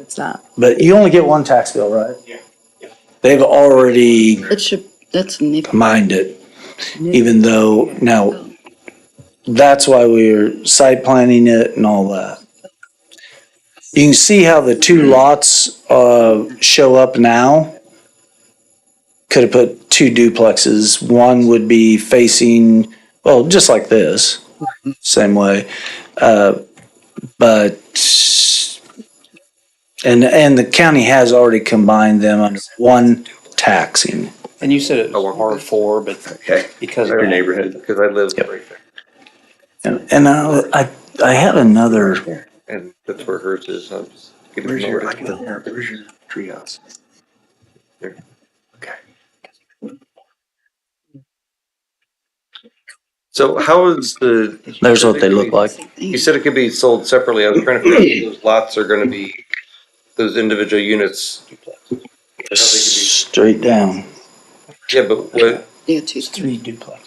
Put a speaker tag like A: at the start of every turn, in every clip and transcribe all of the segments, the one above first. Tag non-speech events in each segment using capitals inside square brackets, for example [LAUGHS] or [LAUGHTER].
A: It's not.
B: But you only get one tax bill, right?
C: Yeah.
B: They've already
A: It should, that's nip.
B: mined it, even though, now, that's why we're site planning it and all that. You can see how the two lots, uh, show up now. Could have put two duplexes. One would be facing, well, just like this, same way. Uh, but, and, and the county has already combined them under one taxing.
D: And you said it
C: Oh, well.
D: was R four, but
C: Okay.
D: because of
C: Our
D: that-
C: neighborhood, because I live
B: Yep.
C: right there.
B: And, and I, I, I had another,
C: And that's where hers is. I'm just getting
E: Where's your,
C: over
E: like,
C: it.
E: the- where's your treehouse? There. Okay.
C: So how is the?
B: there's what they look like.
C: You said it could be sold separately. I was trying to figure out if those lots are gonna be, those individual units.
B: Straight down.
C: Yeah, but what,
A: Yeah, two,
D: three duplex.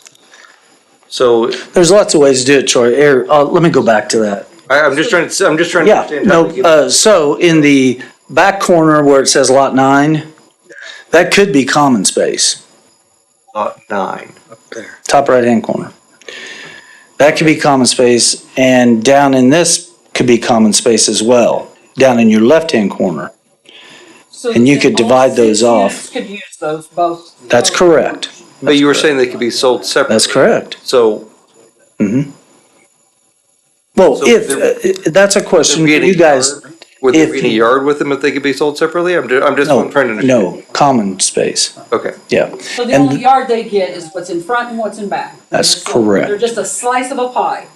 C: so
B: There's lots of ways to do it, Troy. Here, uh, let me go back to that.
C: I, I'm just trying to, I'm just trying to
B: Yeah,
C: understand. how
B: no,
C: they get-
B: uh, so in the back corner where it says lot nine, that could be common space, uh,
C: Lot nine.
B: top right-hand corner. That could be common space and down in this could be common space as well, down in your left-hand corner.
F: So
B: And you
F: then
B: could
F: all
B: divide those
F: six
B: off.
F: units Could use those both.
B: That's correct.
C: But you were saying they could be sold separately.
B: That's correct.
C: So
B: Well,
C: So
B: if,
C: there-
B: uh, that's a question for
C: there be
B: you
C: any
B: guys.
C: yard? would there be
B: if-
C: any yard with them if they could be sold separately? I'm, ju- I'm just
B: No,
C: trying to understand.
B: Oh, no, common space,
C: Okay.
B: yeah.
F: So the
B: And
F: only
B: th-
F: yard they get is what's in front and what's in back.
B: That's
F: They're sold- They're
B: correct.
F: just a slice of a pie,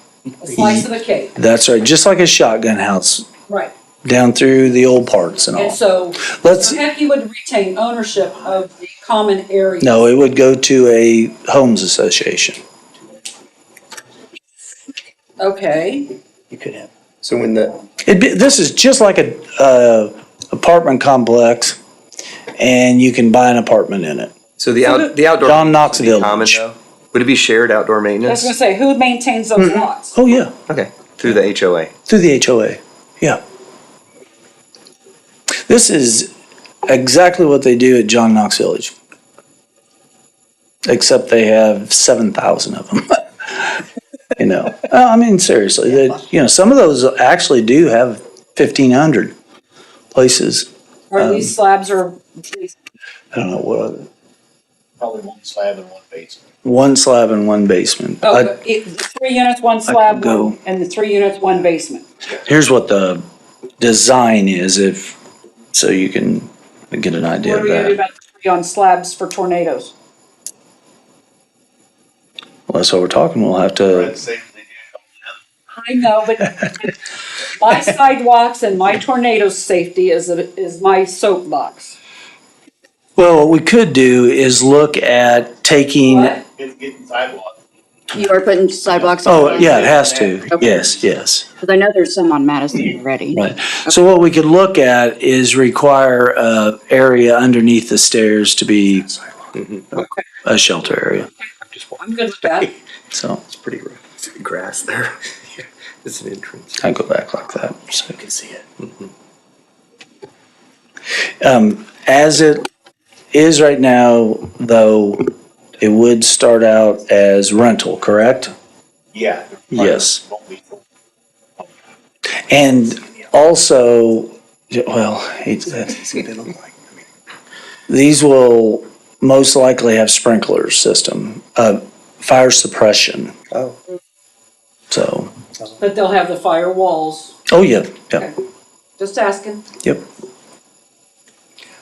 F: a slice of a cake,
B: That's right, just like a shotgun house,
F: right?
B: down through the old parts and
F: And
B: all.
F: so
B: Let's,
F: Coheki would retain ownership of the common area.
B: no, it would go to a homes association.
F: Okay,
D: You could have.
E: So when the,
B: It'd be, this is just like a, uh, apartment complex, and you can buy an apartment in it.
C: So the out, the outdoor.
B: John
C: maintenance would be
B: Knoxville.
C: common, though? Would it be shared outdoor
F: I was gonna
C: maintenance?
F: say, who maintains those lots?
B: Oh, yeah,
C: Okay, through the HOA.
B: through the HOA, yeah. This is exactly what they do at John Knox Village. Except they have seven thousand of them. [LAUGHS] You know, Uh, I mean, seriously, that, you know, some of those actually do have fifteen hundred places.
F: Or
B: Um,
F: these slabs are,
B: I don't know what other,
G: Probably one slab and one basement.
B: one slab and one basement. I-
F: oh, it, three units, one slab,
B: go.
F: one- and the three units, one basement.
B: Here's what the design is if, so you can get an idea
F: What
B: of
F: are we gonna do
B: that.
F: about the three on slabs for tornadoes?
B: Well, that's what we're talking, we'll have to,
F: I know, but my sidewalks and my tornado safety is, a- is my soapbox.
B: well, what we could do is look at taking,
F: What?
G: It's getting sidewalk.
A: You are putting sidewalks on.
B: oh, yeah, it has to,
A: Okay.
B: yes, yes.
A: Because I know there's some on Madison already.
B: Right. So what we could look at is require a area underneath the stairs to be a shelter area,
F: I'm good with that.
B: so
C: It's pretty rough.
E: grass there,
C: [LAUGHS] It's an entrance.
B: I go back like that, so.
E: you can see it.
B: Um, as it is right now, though, it would start out as rental, correct?
G: Yeah.
B: Yes.
G: Won't be full.
B: And also, well, it's- uh,
E: See what they look like. I mean,
B: these will most likely have sprinkler system, uh, fire suppression.
C: Oh.
B: So,
F: But they'll have the fire walls.
B: oh, yeah, yeah,
F: Just asking.
B: yep.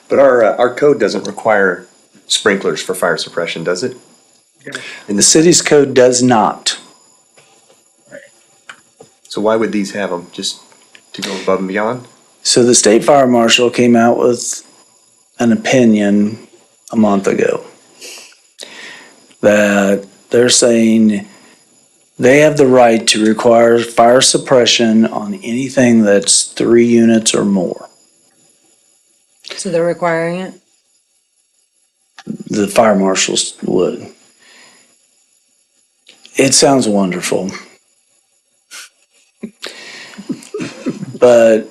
C: But our, uh, our code doesn't require sprinklers for fire suppression, does it?
B: And the city's code does not.
C: So why would these have them? Just to go above and beyond?
B: So the state fire marshal came out with an opinion a month ago that they're saying they have the right to require fire suppression on anything that's three units or more.
H: So they're requiring it?
B: The fire marshals would. It sounds wonderful. [LAUGHS] But